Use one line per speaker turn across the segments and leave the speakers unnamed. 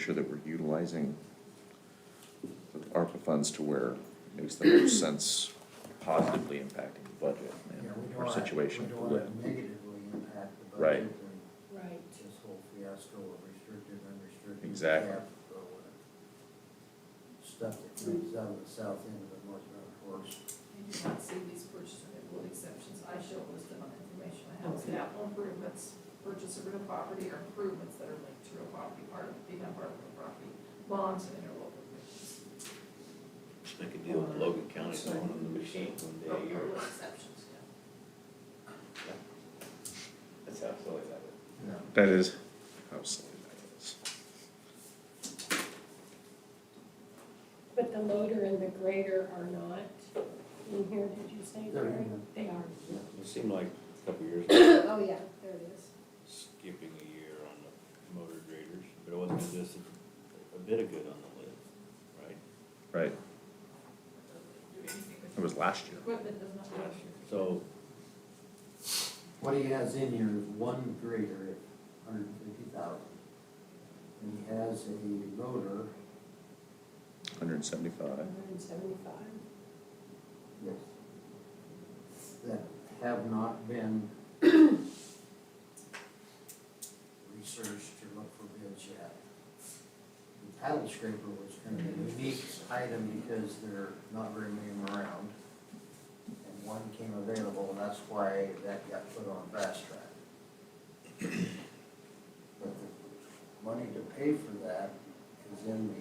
sure that we're utilizing the ARPA funds to where it makes the most sense positively impacting the budget and
Yeah, we don't
our
wanna-
situation.
We don't want to negatively impact the budget.
Right.
and
Right.
This whole fiasco of restricted, unrestricted.
Exactly.
cap, uh, Stuff that comes out of the south end of the North Mountain Forest.
I did not see these purchase agreeable exceptions, I show a list of information I have, so capital improvements, purchase of real property or improvements that are linked to real property, part of, being a part of real property, bonds and interlocal commissions.
I could deal with Logan County going on the machine
Real
one day a year.
property exceptions, yeah.
That's how silly that
No.
That is. How silly that is.
But the loader and the grader are not in here, did you say,
They're in
Gary?
here.
They are.
is. It seemed like a couple years ago,
Oh, yeah, there it is.
skipping a year on the motor graders, but it wasn't just a- a bit of good on the lid, right?
Right,
Do anything with
it was last year.
equipment does not have.
So,
What he has in here is one grader at hundred and fifty thousand. And he has a loader,
Hundred and seventy-five.
Hundred and seventy-five.
yes, that have not been researched or looked for bids yet. The paddle scraper was kind of
Mm-hmm.
a unique item because there are not very many of them around. And one came available, and that's why that got put on fast track. But the money to pay for that is in the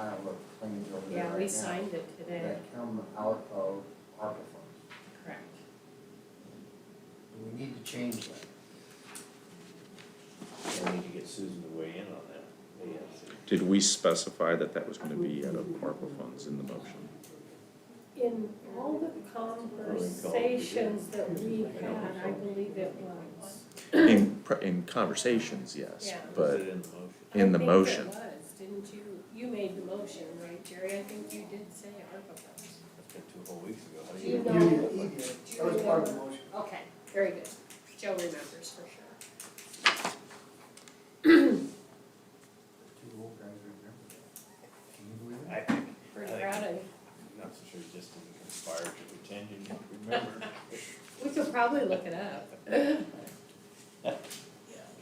pile of claims over there right
Yeah, we
now
signed it today,
that come out of ARPA funds.
correct.
We need to change that.
I need to get Susan to weigh in on that. Yeah, so-
Did we specify that that was gonna be out of ARPA funds in the motion?
In all the conversations that we had, I believe it was.
In, pr- in conversations, yes,
Yeah.
Is
but
it in the motion?
in the motion.
I think it was, didn't you, you made the motion, right, Jerry? I think you did say ARPA funds.
That's been two whole weeks ago. How do
Do you
you?
know-
did. That was part of the motion.
Okay, very good. Joe remembers for sure.
Two old guys remember that. Can you believe
I,
that?
I'm
Pretty proud of you.
not so sure Justin conspired to pretend you don't remember.
We could probably look it up.
I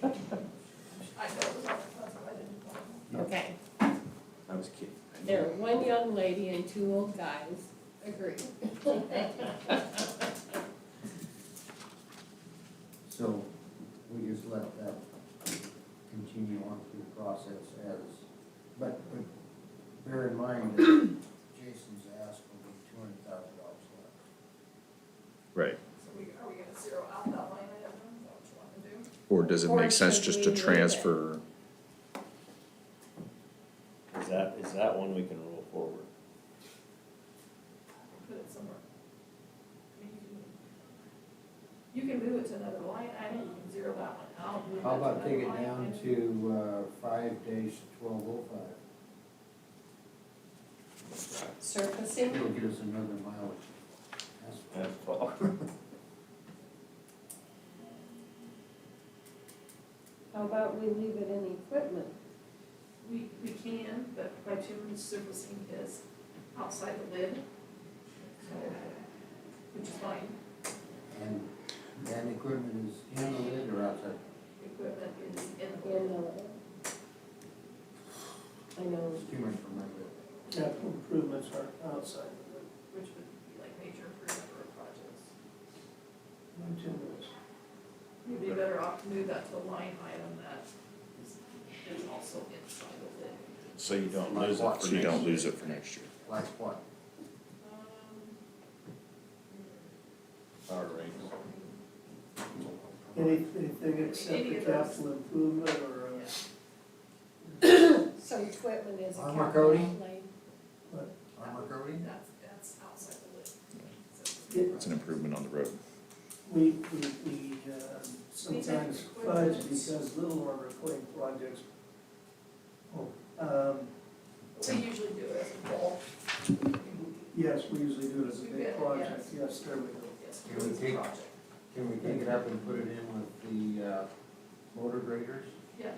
know it was on the puzzle, I didn't. know.
Okay.
I was kidding. I knew
There,
it.
one young lady and two old guys agree.
So we just let that continue on through the process as, but, but bear in mind that Jason's ask will be two hundred thousand dollars left.
Right.
So we, are we gonna zero out that line item, is that what you wanna do?
Or does it
Or
make sense
should
just
we
to
leave it?
transfer?
Is that, is that one we can roll forward?
put it somewhere. I mean, You can you can move it to another line, I mean, you can zero that one out. move
How
to
about
another
take it
line
down
item.
to, uh, five days to twelve oh five?
Surfacing,
It'll get us another mileage. That's fine.
That's all.
how about we leave it in equipment?
We, we can, but bitumen surfacing is outside the lid. so, Which is fine,
And, and equipment is in the lid or outside?
equipment is in the
In
lid.
the, I know,
It's too much for my lid.
Capital improvements are outside of the
which would be like major improvement or projects.
continuous.
You'd be better off to move that to a line item that is, is also inside the lid.
So you don't lose it for
So you don't
next
lose
year.
it for next year.
Like what?
Um,
Power rates.
Any- Anything except
Any
a
of those.
capital improvement or uh,
yeah.
a
so equipment is a
Armor
capital
coating?
outlay.
Armor coating?
That's, that's outside the lid.
Yeah.
It's an improvement on the road.
We, we, we uh, sometimes fudge
equipment.
because little or recurring projects. Um,
We usually do it as a bulk.
yes, we usually do it as a
We get
big
it,
project, yes, there we go.
Yes,
Can we take-
project.
Can we take it up and put it in with the, uh, motor graders?
Yeah,